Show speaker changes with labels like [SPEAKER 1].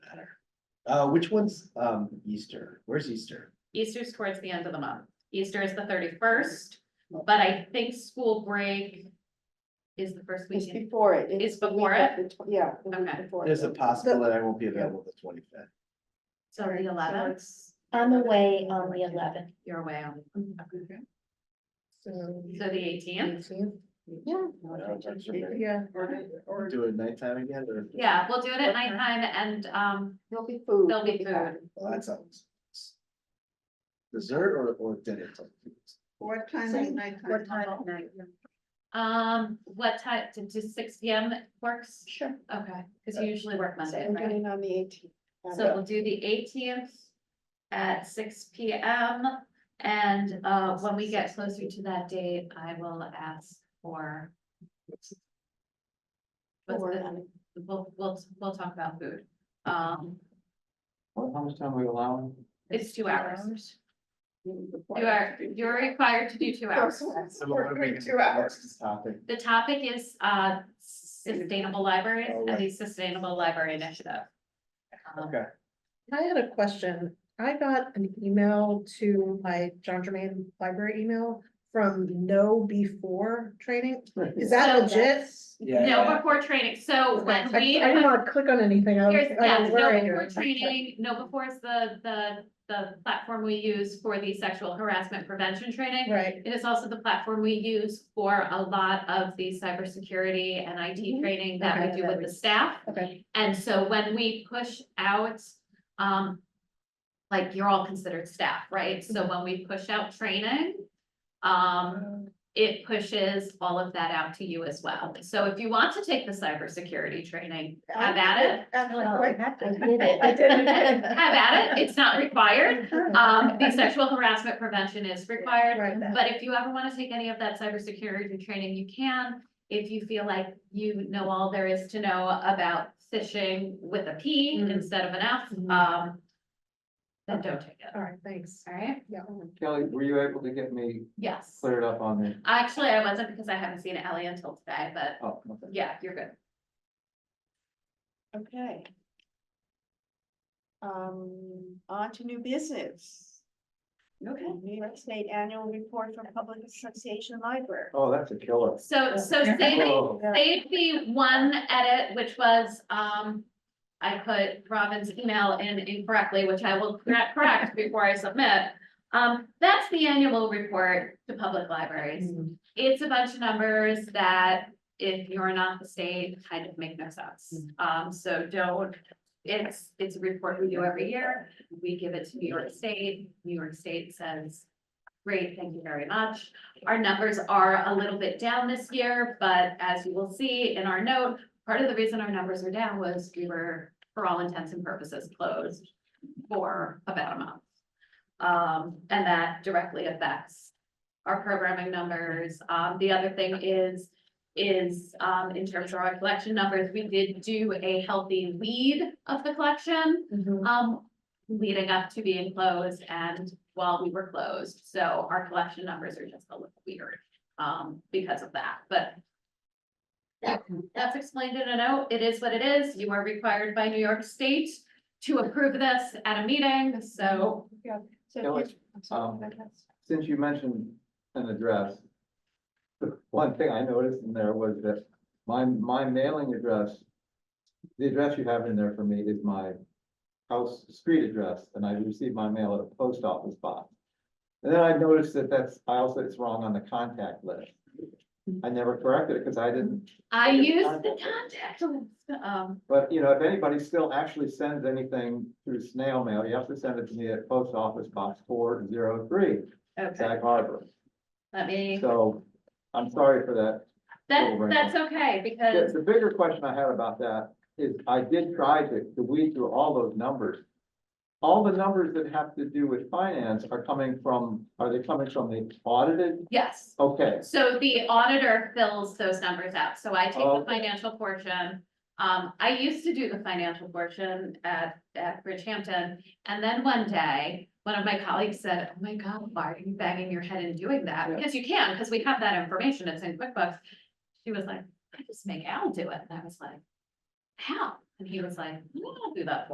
[SPEAKER 1] Uh, which one's, um, Easter? Where's Easter?
[SPEAKER 2] Easter's towards the end of the month. Easter is the thirty-first, but I think school break is the first
[SPEAKER 3] It's
[SPEAKER 2] weekend.
[SPEAKER 3] before it.
[SPEAKER 2] It's
[SPEAKER 3] the
[SPEAKER 2] before
[SPEAKER 3] week of
[SPEAKER 2] it?
[SPEAKER 3] the tw- Yeah. the week
[SPEAKER 2] Okay.
[SPEAKER 3] before it.
[SPEAKER 1] There's a
[SPEAKER 3] The-
[SPEAKER 1] possible that I won't be available the twenty-fifth.
[SPEAKER 2] So the eleventh,
[SPEAKER 4] I'm away on the eleventh.
[SPEAKER 2] you're away on,
[SPEAKER 4] So.
[SPEAKER 2] so the eighteenth?
[SPEAKER 4] Yeah.
[SPEAKER 5] Yeah.
[SPEAKER 1] Or do it nighttime again or?
[SPEAKER 2] Yeah, we'll do it at nighttime and, um,
[SPEAKER 3] There'll be food.
[SPEAKER 2] there'll be food.
[SPEAKER 1] Well, that sounds. Dessert or, or dinner?
[SPEAKER 5] What time
[SPEAKER 4] Same.
[SPEAKER 5] is nighttime?
[SPEAKER 4] What time at night?
[SPEAKER 2] Um, what time, to, to six P M works?
[SPEAKER 4] Sure.
[SPEAKER 2] Okay, cause you usually work
[SPEAKER 3] So
[SPEAKER 2] Monday,
[SPEAKER 3] I'm
[SPEAKER 2] right?
[SPEAKER 3] doing on the eighteenth.
[SPEAKER 2] So we'll do the eighteenth at six P M. And uh, when we get closer to that date, I will ask for. What's the- We'll, we'll, we'll talk about food. Um,
[SPEAKER 6] How much time are we allowing?
[SPEAKER 2] it's two hours. You are, you're required to do two hours.
[SPEAKER 1] Two hours. Topic.
[SPEAKER 2] The topic is uh sustainable libraries
[SPEAKER 1] Oh,
[SPEAKER 2] and
[SPEAKER 1] right.
[SPEAKER 2] the Sustainable Library Initiative. Um,
[SPEAKER 1] Okay.
[SPEAKER 6] I had a question. I got an email to my John Germain library email from no before training. Is that
[SPEAKER 2] So-
[SPEAKER 6] legit?
[SPEAKER 1] Yeah,
[SPEAKER 2] No,
[SPEAKER 1] yeah.
[SPEAKER 2] before training, so
[SPEAKER 6] I
[SPEAKER 2] when
[SPEAKER 6] I
[SPEAKER 2] we.
[SPEAKER 6] didn't want to click on anything. I was,
[SPEAKER 2] Here's,
[SPEAKER 6] I
[SPEAKER 2] yeah,
[SPEAKER 6] was
[SPEAKER 2] no
[SPEAKER 6] worried.
[SPEAKER 2] before training, no before is the, the, the platform we use for the sexual harassment prevention training.
[SPEAKER 6] Right,
[SPEAKER 2] It is also the platform we use for a lot of the cybersecurity and IT training that
[SPEAKER 6] Mm-hmm. Okay.
[SPEAKER 2] we do with the staff.
[SPEAKER 6] okay,
[SPEAKER 2] And so when we push out, um, like you're all considered staff, right? So when we push out training, um, it pushes all of that out to you as well. So if you want to take the cybersecurity training, have at it.
[SPEAKER 4] Oh, I did it.
[SPEAKER 6] I did
[SPEAKER 2] Have
[SPEAKER 6] it.
[SPEAKER 2] at it, it's not required, um, the sexual harassment prevention is required,
[SPEAKER 6] Right.
[SPEAKER 2] but if you ever wanna take any of that cybersecurity training, you can. If you feel like you know all there is to know about phishing with a P
[SPEAKER 6] Mm.
[SPEAKER 2] instead of an F,
[SPEAKER 6] Mhm.
[SPEAKER 2] um. Then don't take it,
[SPEAKER 6] All right, thanks.
[SPEAKER 2] alright,
[SPEAKER 6] Kelly, were you able to get me
[SPEAKER 2] yes,
[SPEAKER 6] cleared up on the?
[SPEAKER 2] actually, I wasn't because I haven't seen Ellie until today, but
[SPEAKER 6] Oh,
[SPEAKER 2] yeah, you're good.
[SPEAKER 3] Okay. Um, on to new business.
[SPEAKER 2] Okay.
[SPEAKER 3] New York State Annual Report from Public Association Library.
[SPEAKER 6] Oh, that's a killer.
[SPEAKER 2] So, so saving,
[SPEAKER 1] Oh,
[SPEAKER 6] Whoa.
[SPEAKER 2] They'd be one edit, which was, um, I put Robin's email in incorrectly, which I will correct, correct before I submit. Um, that's the annual report to public libraries. It's a bunch of numbers that if you're not the state, kind of make no sense. Um, so don't, it's, it's a report we do every year. We give it to New York State. New York State says, great, thank you very much. Our numbers are a little bit down this year, but as you will see in our note, part of the reason our numbers are down was we were, for all intents and purposes, closed for about a month. Um, and that directly affects our programming numbers. Um, the other thing is, is, um, in terms of our collection numbers, we did do a healthy lead of the collection
[SPEAKER 6] Mm-hmm.
[SPEAKER 2] um, leading up to being closed and while we were closed. So our collection numbers are just a little weird, um, because of that, but that's explained in a note. It is what it is. You are required by New York State to approve this at a meeting, so
[SPEAKER 3] Mhm. So
[SPEAKER 6] Kelly,
[SPEAKER 3] here's- I'm sorry,
[SPEAKER 6] um,
[SPEAKER 3] I guess.
[SPEAKER 6] since you mentioned an address. the One thing I noticed in there was that my, my mailing address. The address you have in there for me is my house, street address, and I received my mail at a post office box. And then I noticed that that's, I also, it's wrong on the contact list. I never corrected it because I didn't,
[SPEAKER 2] I use the contact list. Um,
[SPEAKER 6] but you know, if anybody still actually sends anything through snail mail, you have to send it to me at post office box four zero three,
[SPEAKER 2] okay,
[SPEAKER 6] Sag Harbor.
[SPEAKER 2] let me,
[SPEAKER 6] So I'm sorry for that
[SPEAKER 2] that, that's okay
[SPEAKER 6] Yeah,
[SPEAKER 2] because,
[SPEAKER 6] the bigger question I had about that is I did try to, to weed through all those numbers. All the numbers that have to do with finance are coming from, are they coming from the audited?
[SPEAKER 2] yes.
[SPEAKER 6] Okay,
[SPEAKER 2] So the auditor fills those numbers out, so I take the
[SPEAKER 6] Okay.
[SPEAKER 2] financial portion. Um, I used to do the financial portion at, at Bridgehampton, and then one day, one of my colleagues said, oh my god, why are you banging your head and doing that?
[SPEAKER 6] Yeah.
[SPEAKER 2] Because you can, because we have that information, it's in QuickBooks. She was like, I just make Al do it, and I was like, how? And he was like, "No, I'll do that for